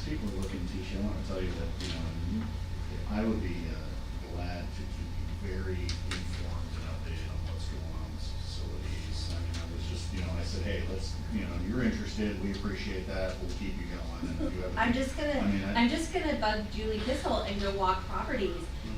Tisha, I want to tell you that, you know, I would be uh, glad to keep you very informed and updated on what's going on with facilities. I mean, I was just, you know, I said, hey, let's, you know, you're interested, we appreciate that, we'll keep you going. And if you have- I'm just gonna, I mean, I- I'm just gonna bug Julie Kissel and go walk properties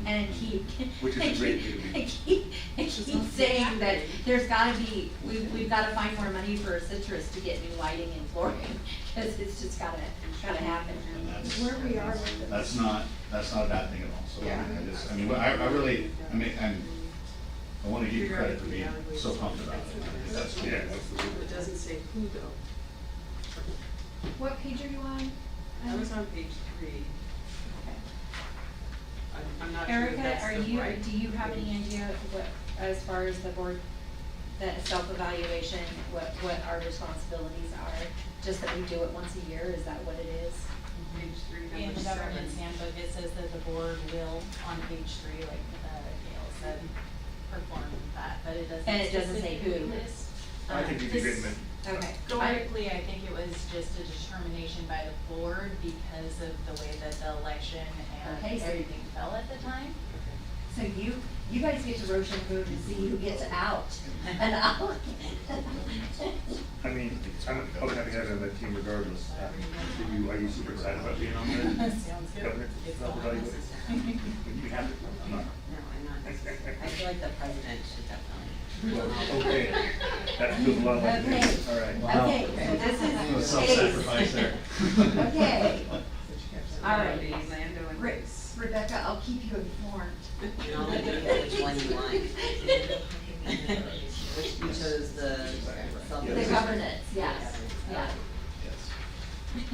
and keep, Which is a and great keep, thing to do. and keep, and She's keep also saying happy. that there's gotta be, we, we've gotta find more money for Citrus to get new lighting and flooring, cause it's just gotta, gotta happen. And that's. Where we are with it. That's not, that's not a bad thing at all, so I Yeah. mean, I just, I mean, I, I really, I mean, I'm, I want to give you credit for being so pumped about it. I think That's cool. Yeah, absolutely. It doesn't say who though. What page are you on? Um, I was on page three. I'm, I'm not sure if Erica, that's are the you, right do you have any page. idea what, as far as the board, the self-evaluation, what, what our responsibilities are? Just that we do it once a year, is that what it is? Page three, In number the governance seven. handbook, it says that the board will, on page three, like uh, Gail said, perform that, but it doesn't. And it doesn't say who. specifically list. I think you Um, can this- get them Okay. Historically, I think it was just a determination by the board because of the way that the election and Okay, so- everything fell at the time. So you, you guys get to roach and food and see who gets out, and I'll. I mean, I'm, I'm happy having that team regardless. I mean, Are you, are you super excited about being on there? Sounds good. Governor, It's not all really. necessary. You have it? I'm not. No, I'm not. I feel like the president should definitely. Well, okay. That feels a lot like me. Okay. All right. Wow. Okay, so this is. A little self-sacrifice there. Okay. All right. Be Lando and Re- Grace. Rebecca, I'll keep you informed. And I'll let you pick which one you want. Which you chose the self. The governance, yes, yeah. Yes.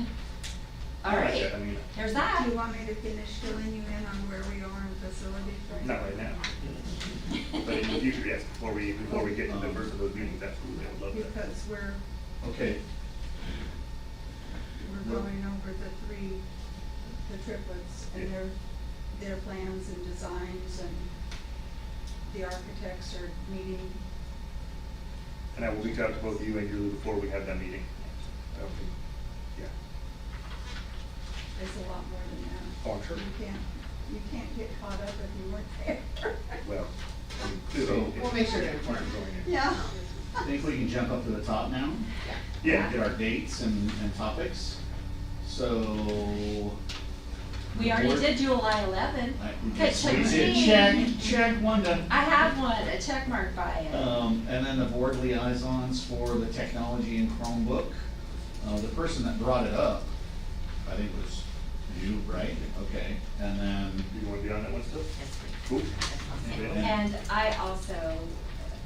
All I like that. I right, mean, there's that. Do you want me to finish filling you in on where we are in facility first? not right now, but in the future, yes, before we, before we get to the first of those meetings, absolutely, I would love that. Because we're, Okay, we're going over the three, the triplets Yeah. and their, their plans and designs and the architects are meeting. And I will reach out to both you and Julie before we have that meeting. I don't think, yeah, There's a lot more than that. oh, I'm sure, You can't, you can't get caught up if you weren't there. well. I mean, So- clearly- We'll make sure to Going in. Yeah. I think we can jump up to the top now. Yeah, Get our dates and, and topics. So, We already did July eleven. I, Good we did check, check one done. I have one, a check mark by it. Uh, Um, and then the board liaisons for the technology in Chromebook. Uh, the person that brought it up, I think was you, right? Okay, and then, you wanna be on that one still? Yes, Cool. please. Yeah. And I also,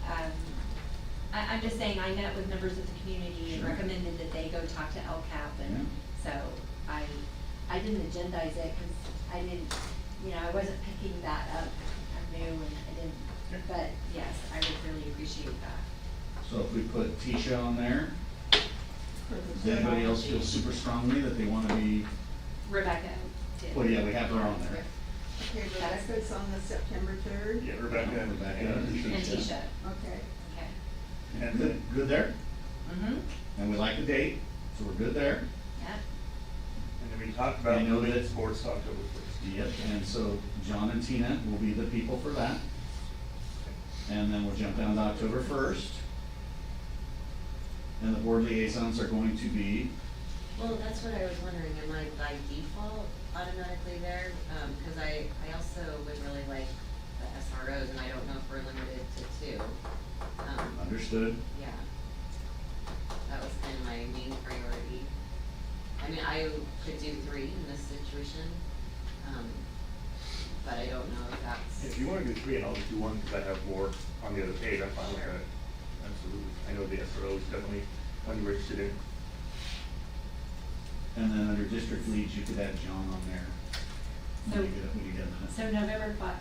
um, I, I'm just saying, I met with members of the community and Sure. recommended that they go talk to LCAP and so I, I didn't agendize it because I didn't, you know, I wasn't picking that up. I'm new and I Sure. didn't, but yes, I would really appreciate that. so if we put Tisha on there, does anybody else feel super strongly that they wanna be, Rebecca did. well, yeah, we have her on there. Okay, Rebecca's on the September third. Yeah, Rebecca and. Rebecca. And Tisha, Okay. okay. And Good, then, good there, Mm-hmm. and we like the date, so we're good there. Yeah. and then we talked about I know moving that- sports to October first. Yep, and so John and Tina will be the people for that. And then we'll jump down to October first. And the board liaisons are going to be, Well, that's what I was wondering, am I by default automatically there? Um, cause I, I also would really like the SROs and I don't know if we're limited to two. Um, understood, Yeah. That was kind of my main priority. I mean, I could do three in this situation, um, but I don't know if that's, If you wanna do three, and I'll just do one, cause I have more on the other page, I'm fine with that, absolutely. I know the SRO is definitely one you're interested in. and then under district leads, you could add John on there. When you So- get- when you get a minute. So November fi-